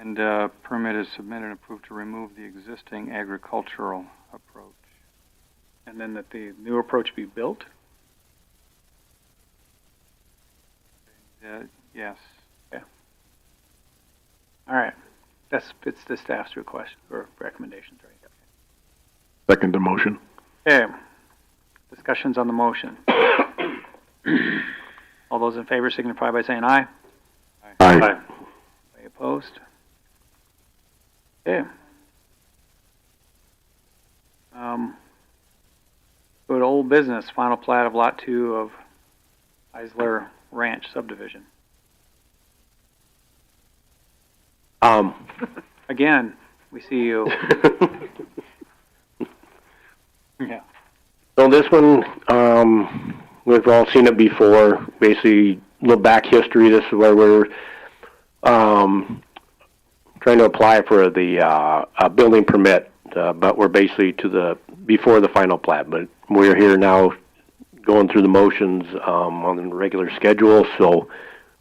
And uh, permit is submitted and approved to remove the existing agricultural approach. And then that the new approach be built? Uh, Yes. All right. That's, it's the staff's request or recommendations, right? Second the motion. Okay. Discussions on the motion. All those in favor signify by saying aye. Aye. Any opposed? Okay. Um, go to old business, final plat of lot two of Isler Ranch subdivision. Um, Again, we see you. Yeah. so this one, um, we've all seen it before. Basically, look back history. This is where we're um, trying to apply for the uh, a building permit, uh, but we're basically to the before the final plat. But we're here now, going through the motions um, on the regular schedule. So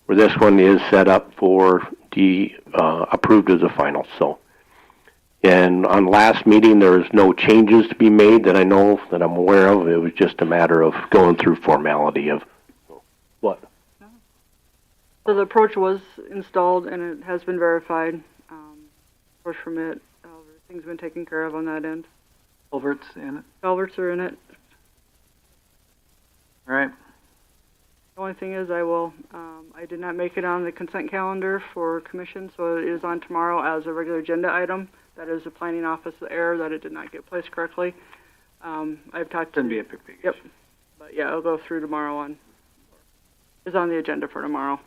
where this one is set up for the uh, approved as a final. So. And on last meeting, there was no changes to be made that I know, of, that I'm aware of. It was just a matter of going through formality of what? So the approach was installed and it has been verified. Um, approach permit, uh, everything's been taken care of on that end. Culverts in it. Culverts are in it. All right. The only thing is, I will. Um, I did not make it on the consent calendar for commission, so it is on tomorrow as a regular agenda item. That is the planning office error that it did not get placed correctly. Um, I've talked to Shouldn't be a big, big Yep. But yeah, I'll go through tomorrow on, is on the agenda for tomorrow.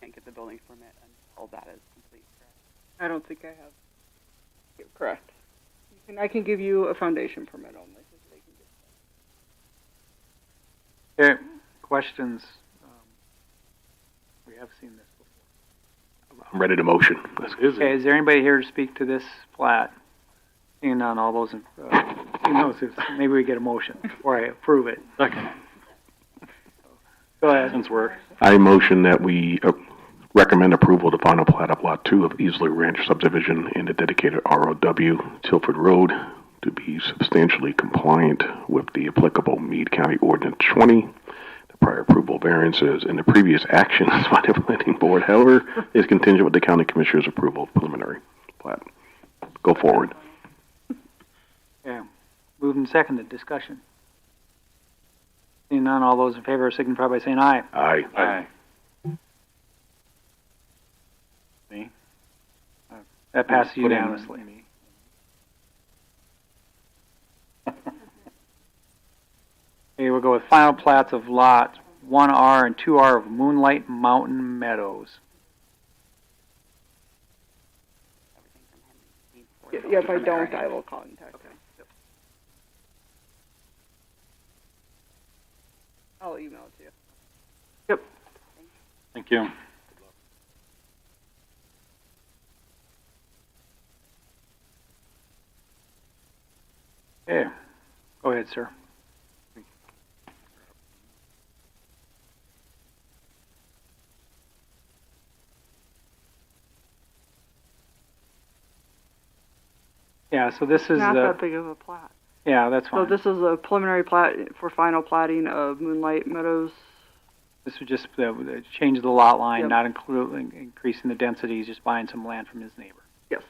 can't get the building permit until that is complete, correct? I don't think I have. Yeah, Correct. You can, I can give you a foundation permit only. Okay, questions? Um, We have seen this before. I'm ready to motion. Let's go. Okay, is there anybody here to speak to this plat? Seeing none, all those in, uh, seeing those, if- maybe we get a motion before I approve it. Second. Go ahead. Since we're, I motion that we uh, recommend approval of the final plat of Lot Two of Easley Ranch subdivision in the dedicated ROW Tilford Road to be substantially compliant with the applicable Meade County Ordinance twenty, the prior approval variances, and the previous actions by the planning board, however, is contingent with the county commissioner's approval of preliminary plat. Go forward. Okay, moved and seconded, discussion. Seeing none, all those in favor signify by saying aye. Aye. aye. That passes Put in unanimously. me. Okay, we'll go with final plats of lot one R and two R of Moonlight Mountain Meadows. Everything from him. he needs for Yeah, if I don't, I will contact him. I'll email it to you. Thank you. Okay, go ahead, sir. Yeah, so this is Not that the, big of a plat. yeah, that's So fine. this is a preliminary plat for final plating of Moonlight Meadows. This would just, uh, uh, change the lot line, Yep. not including, increasing the density, he's just buying some land from his neighbor. Yes.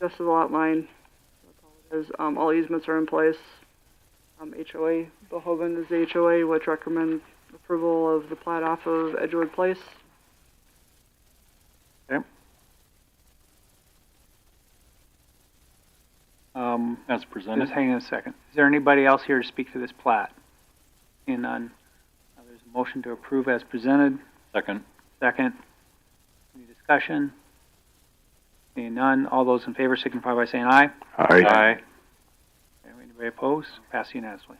Just the lot line. That's all it is. Um, all easements are in place. Um, HOA, Bohoven is the HOA, which recommends approval of the plat off of Edgewood Place. Um, As Just presented. hang on a second. Is there anybody else here to speak to this plat? Seeing none. Uh, There's a motion to approve as presented. Second. Second. Any discussion? Seeing none, all those in favor signify by saying aye. Aye. Anybody opposed? Pass unanimously.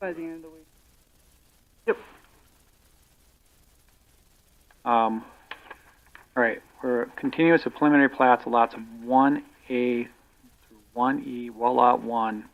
By the end of the week. Um, all right, we're continuous of preliminary plats of lots of one A through one E, well lot one,